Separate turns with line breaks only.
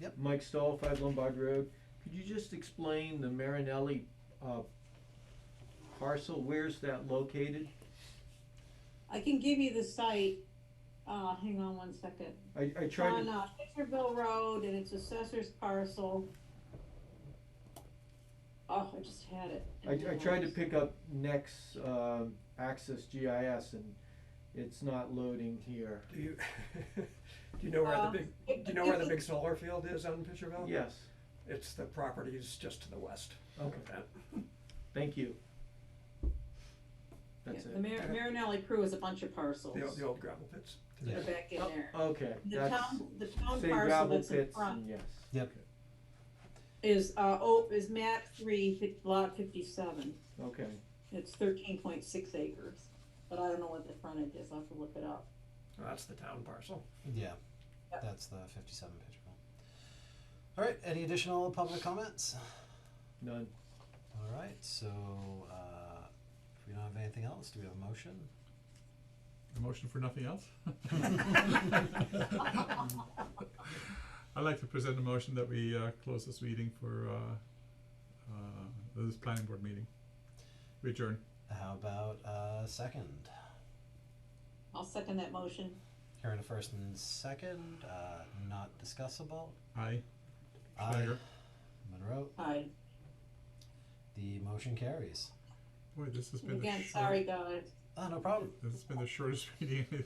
Yep.
Mike Stahl, Five Lombard Road. Could you just explain the Marinelli uh, parcel? Where's that located?
I can give you the site, uh, hang on one second.
I, I
It's
tried
on,
to,
uh, Fisherville Road and it's assessor's parcel. Oh, I just had it.
I, I tried to pick up Nex um, Access GIS and it's not loading here.
Do you, do you know where the
Uh,
big, do you know where the big solar field is on Fisherville?
Yes,
It's the properties just to the west.
okay, thank you.
Yeah,
That's
The
it.
Mar- Marinelli Crew is a bunch of parcels.
The, old- the old gravel pits.
They're back in
Oh,
there.
Okay,
The
that's,
town, the town
say
parcel
gravel
that's in
pits
front
and yes.
Yep.
is, uh, oh, is map three, fif- lot fifty-seven.
Okay,
It's thirteen point six acres, but I don't know what the frontage is, I'll have to look it up.
Well, That's the town parcel.
Yeah,
Yep.
that's the fifty-seven picture. All right, any additional public comments?
none.
All right, so uh, if we don't have anything else, do we have a motion?
A motion for nothing else? I'd like to present a motion that we uh close this meeting for uh uh this planning board meeting. We adjourn.
How about uh, second?
I'll second that motion.
Hearing a first and second, uh, not discussable.
Aye.
Aye.
Schwager.
Monroe,
Aye.
the motion carries.
Boy, this has been the
Again,
short-
sorry, guys.
Oh, no problem.
This has been the shortest meeting